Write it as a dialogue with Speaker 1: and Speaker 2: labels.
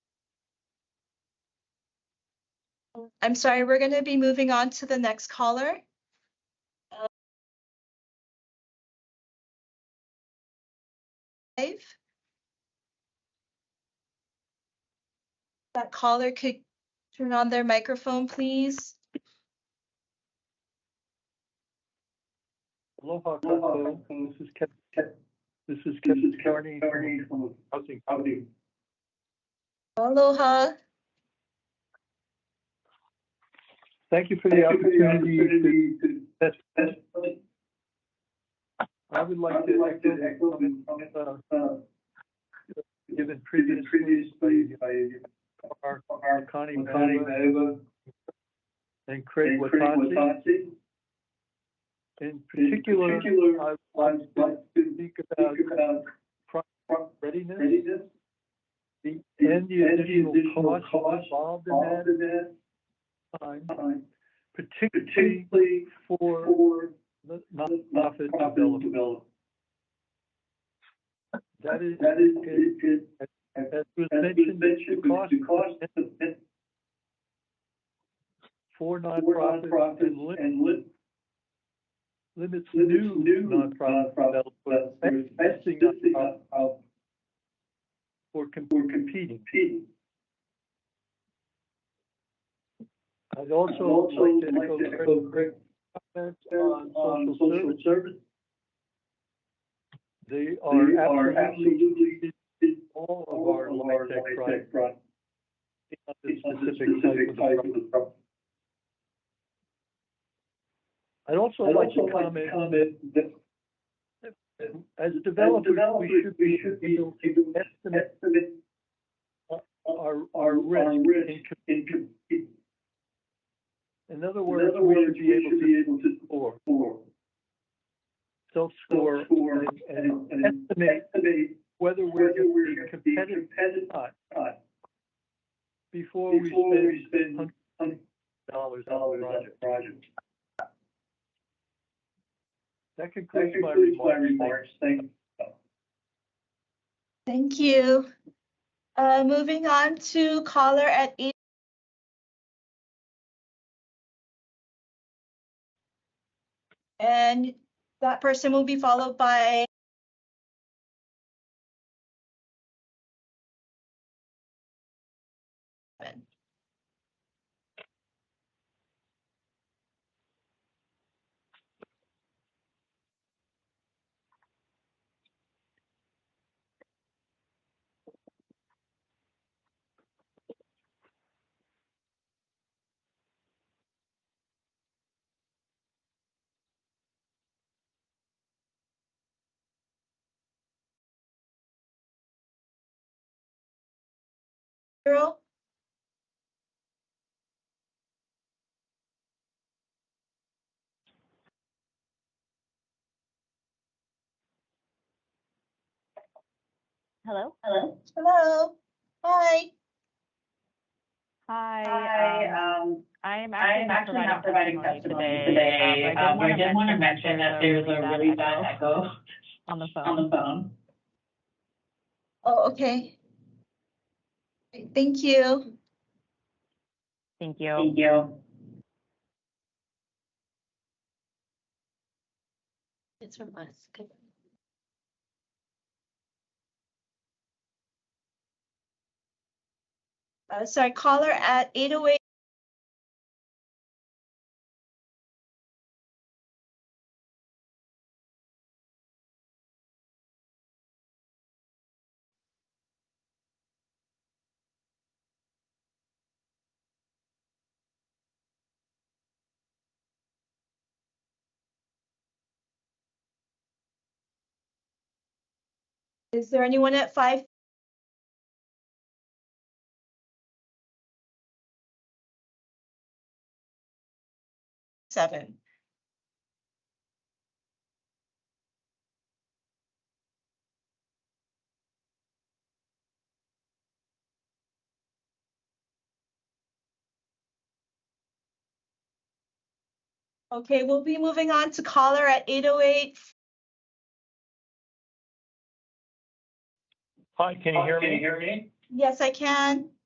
Speaker 1: I'm sorry, we're going to be moving on to the next caller. Dave? That caller could turn on their microphone, please.
Speaker 2: Aloha,
Speaker 3: Aloha,
Speaker 2: Kaku. This is Kevin. This is Kevin Carney from Housing.
Speaker 3: Howdy.
Speaker 1: Aloha.
Speaker 2: Thank you for the opportunity. to- That's, I would like to like to echo the comments, uh, given previously
Speaker 3: Previously, by
Speaker 2: by
Speaker 3: our
Speaker 2: Connie
Speaker 3: Connie
Speaker 2: Madewa
Speaker 3: Madewa
Speaker 2: and Craig
Speaker 3: and Craig
Speaker 2: Watasi.
Speaker 3: Watasi.
Speaker 2: In
Speaker 3: In
Speaker 2: particular,
Speaker 3: particular,
Speaker 2: I
Speaker 3: I'd
Speaker 2: would like
Speaker 3: like to
Speaker 2: to speak about
Speaker 3: speak about
Speaker 2: readiness,
Speaker 3: readiness
Speaker 2: the,
Speaker 3: and the
Speaker 2: additional
Speaker 3: additional
Speaker 2: costs
Speaker 3: costs
Speaker 2: involved in
Speaker 3: involved
Speaker 2: that
Speaker 3: in that
Speaker 2: time,
Speaker 3: time,
Speaker 2: particularly
Speaker 3: particularly
Speaker 2: for
Speaker 3: for
Speaker 2: the
Speaker 3: nonprofit
Speaker 2: nonprofit development.
Speaker 3: development.
Speaker 2: That is,
Speaker 3: That is,
Speaker 2: it-
Speaker 3: it,
Speaker 2: as was
Speaker 3: as was
Speaker 2: mentioned,
Speaker 3: mentioned,
Speaker 2: the cost
Speaker 3: the cost of it
Speaker 2: for
Speaker 3: for
Speaker 2: nonprofits
Speaker 3: nonprofits
Speaker 2: and lim-
Speaker 3: and lit,
Speaker 2: limits
Speaker 3: limits
Speaker 2: new
Speaker 3: new
Speaker 2: nonprofit
Speaker 3: nonprofit
Speaker 2: developers
Speaker 3: investing
Speaker 2: investing
Speaker 3: of,
Speaker 2: nonprofits
Speaker 3: of
Speaker 2: for com-
Speaker 3: for
Speaker 2: competing.
Speaker 3: competing.
Speaker 2: I'd
Speaker 3: I'd
Speaker 2: also like to echo Craig's
Speaker 3: Craig's
Speaker 2: comments
Speaker 3: comments
Speaker 2: on
Speaker 3: on
Speaker 2: social service.
Speaker 3: service.
Speaker 2: They
Speaker 3: They
Speaker 2: are absolutely all of
Speaker 3: all
Speaker 2: our
Speaker 3: of our
Speaker 2: LIHTC
Speaker 3: LIHTC
Speaker 2: projects,
Speaker 3: projects.
Speaker 2: not the
Speaker 3: It's not the
Speaker 2: specific type of the
Speaker 3: type
Speaker 2: project.
Speaker 3: of the project.
Speaker 2: I'd also
Speaker 3: I'd
Speaker 2: like
Speaker 3: also
Speaker 2: to
Speaker 3: like to
Speaker 2: comment,
Speaker 3: comment that
Speaker 2: as
Speaker 3: as
Speaker 2: developers, we
Speaker 3: developers,
Speaker 2: should
Speaker 3: we
Speaker 2: be
Speaker 3: should be
Speaker 2: able to
Speaker 3: able to
Speaker 2: estimate
Speaker 3: estimate
Speaker 2: our,
Speaker 3: our
Speaker 2: our risk.
Speaker 3: risk
Speaker 2: in co-
Speaker 3: in competing.
Speaker 2: In other
Speaker 3: In
Speaker 2: words,
Speaker 3: other
Speaker 2: we
Speaker 3: words,
Speaker 2: should be able to
Speaker 3: able to
Speaker 2: score,
Speaker 3: score,
Speaker 2: self-score,
Speaker 3: score,
Speaker 2: and-
Speaker 3: and
Speaker 2: and
Speaker 3: and
Speaker 2: estimate
Speaker 3: estimate
Speaker 2: whether we're
Speaker 3: whether
Speaker 2: going
Speaker 3: we're
Speaker 2: to be
Speaker 3: be
Speaker 2: competitive
Speaker 3: competitive
Speaker 2: or not
Speaker 3: or not
Speaker 2: before we
Speaker 3: before we
Speaker 2: spend
Speaker 3: spend
Speaker 2: hundred
Speaker 3: hundred
Speaker 2: dollars on
Speaker 3: dollars
Speaker 2: the
Speaker 3: on
Speaker 2: project.
Speaker 3: a project.
Speaker 2: That
Speaker 3: That
Speaker 2: concludes my
Speaker 3: concludes my
Speaker 2: remarks. Thank you.
Speaker 3: remarks. Thank
Speaker 1: Thank you. Uh, moving on to caller at eight. And that person will be followed by zero.
Speaker 4: Hello.
Speaker 5: Hello.
Speaker 1: Hello, hi.
Speaker 4: Hi.
Speaker 5: Hi,
Speaker 4: um,
Speaker 5: um,
Speaker 4: I am
Speaker 5: I'm actually not providing testimony today. Um, I did want to mention that there's a really bad echo
Speaker 4: on the phone.
Speaker 5: on the phone.
Speaker 1: Oh, okay. Great, Thank you.
Speaker 4: Thank you.
Speaker 5: Thank you.
Speaker 1: It's from us. Uh, sorry, caller at eight oh eight. Is there anyone at five? Seven. Okay, we'll be moving on to caller at eight oh eight.
Speaker 2: Hi, can you hear me?
Speaker 3: hear me?
Speaker 1: Yes, I can.